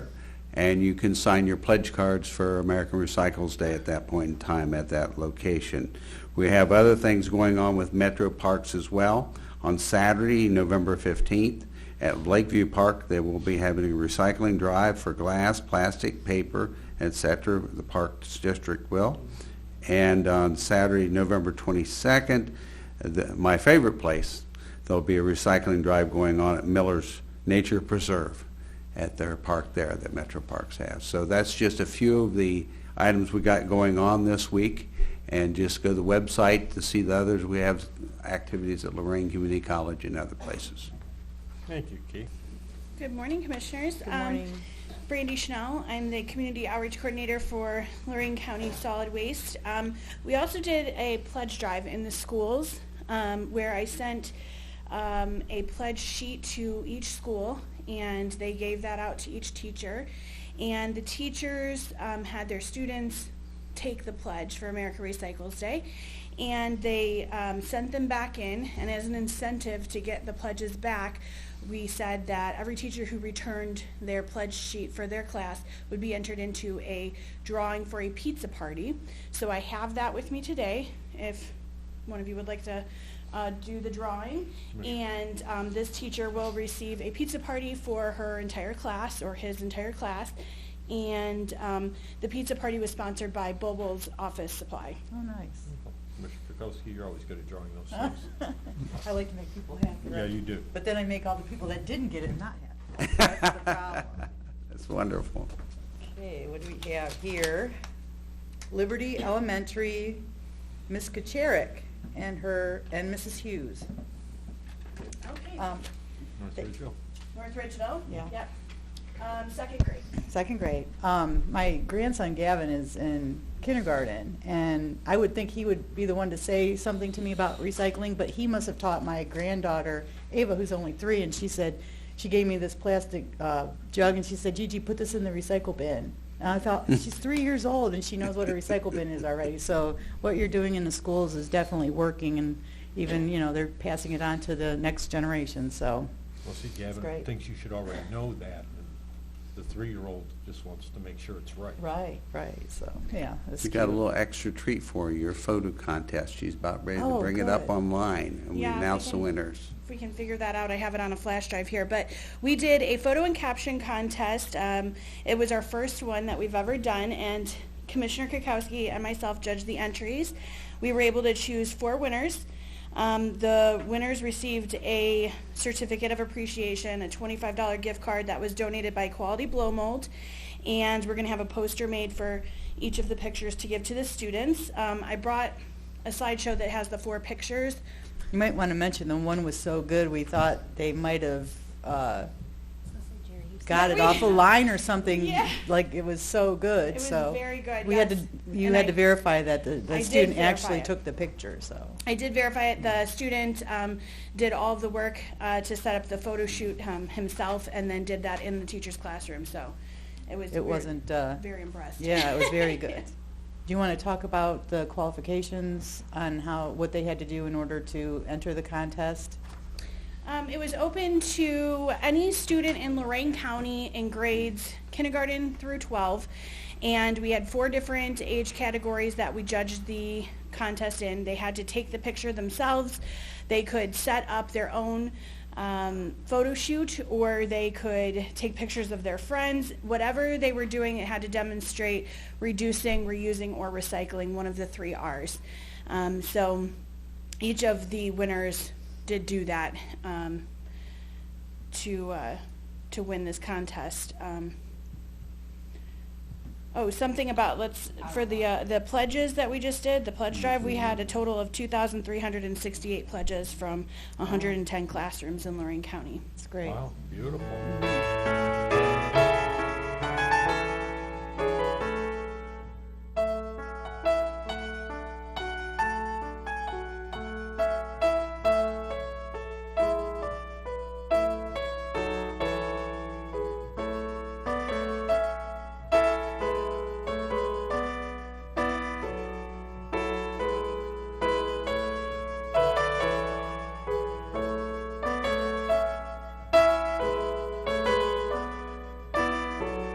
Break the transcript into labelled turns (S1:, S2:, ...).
S1: and you can sign your pledge cards for American Recycles Day at that point in time at that location. We have other things going on with Metro Parks as well. On Saturday, November 15th, at Lakeview Park, they will be having a recycling drive for glass, plastic, paper, etc. The Parks District will. And on Saturday, November 22nd, the- my favorite place, there'll be a recycling drive going on at Miller's Nature Preserve at their park there that Metro Parks has. So that's just a few of the items we got going on this week. And just go to the website to see the others. We have activities at Lorraine Community College and other places.
S2: Thank you, Keith.
S3: Good morning, Commissioners. Good
S4: morning.
S3: Brandy Chanel, I'm the Community Outreach Coordinator for Lorraine County Solid Waste. Um, We also did a pledge drive in the schools um, where I sent um, a pledge sheet to each school, and they gave that out to each teacher. And the teachers um, had their students take the pledge for America Recycles Day. And they um, sent them back in, and as an incentive to get the pledges back, we said that every teacher who returned their pledge sheet for their class would be entered into a drawing for a pizza party. So I have that with me today, if one of you would like to uh, do the drawing. And um, this teacher will receive a pizza party for her entire class, or his entire class. And um, the pizza party was sponsored by Bobo's Office Supply.
S4: Oh, nice.
S2: Commissioner Kukowski, you're always good at drawing those things.
S4: I like to make people happy.
S2: Yeah, you do.
S4: But then I make all the people that didn't get it not happy. That's the problem.
S1: That's wonderful.
S4: Okay, what do we have here? Liberty Elementary, Miss Kucharik and her, and Mrs. Hughes.
S3: Okay.
S4: Um,
S2: North
S4: They-
S2: Ridgeville.
S3: Uh, North Ridgeville?
S4: Yeah.
S3: Yep. Um, Second grade.
S4: Second grade. Um, my grandson Gavin is in kindergarten, and I would think he would be the one to say something to me about recycling, but he must have taught my granddaughter Ava, who's only three, and she said, she gave me this plastic uh, jug, and she said, Gigi, put this in the recycle bin. And I thought,
S1: Hmm.
S4: she's three years old, and she knows what a recycle bin is already. So what you're doing in the schools is definitely working, and even, you know, they're passing it on to the next generation, so.
S2: Well, see, Gavin
S4: great.
S2: thinks you should already know that, and the three-year-old just wants to make sure it's right.
S4: Right, right, so, yeah. it's
S1: We got a
S4: cute.
S1: little extra treat for you, your photo contest. She's about ready to
S4: Oh,
S1: bring it up
S4: good.
S1: online, and we
S3: Yeah, we
S1: announce the
S3: can-
S1: winners.
S3: if we can figure that out, I have it on a flash drive here, but we did a photo and caption contest. Um, it was our first one that we've ever done, and Commissioner Kukowski and myself judged the entries. We were able to choose four winners. Um, the winners received a certificate of appreciation, a $25 gift card that was donated by Quality Blow Mold, and we're going to have a poster made for each of the pictures to give to the students. Um, I brought a slideshow that has the four pictures.
S4: You might want to mention the one was so good, we thought they might have uh, got it
S3: We-
S4: off a line or something,
S3: Yeah.
S4: like it was so
S3: It
S4: good,
S3: was
S4: so.
S3: very good,
S4: We had to,
S3: yes.
S4: you
S3: And
S4: had
S3: I-
S4: to verify that the,
S3: I
S4: the
S3: did
S4: student
S3: verify
S4: actually
S3: it.
S4: took the picture, so.
S3: I did verify it. The student um, did all of the work uh, to set up the photo shoot um, himself, and then did that in the teacher's classroom. So it was. we
S4: It
S3: were
S4: wasn't, uh,
S3: Very impressed.
S4: yeah, it was very good. Do you want to talk about the qualifications on how, what they had to do in order to enter the contest?
S3: Um, it was open to any student in Lorraine County in grades kindergarten through 12. And we had four different age categories that we judged the contest in. They had to take the picture themselves. They could set up their own um, photo shoot or they could take pictures of their friends. Whatever they were doing, it had to demonstrate reducing, reusing, or recycling, one of the three R's. Um, so each of the winners did do that um, to uh, to win this contest. Um, oh, something about let's for the uh, the pledges that we just did the pledge drive. We had a total of 2,368 pledges from 110 classrooms in Lorraine County.
S4: It's great.
S2: Wow, beautiful.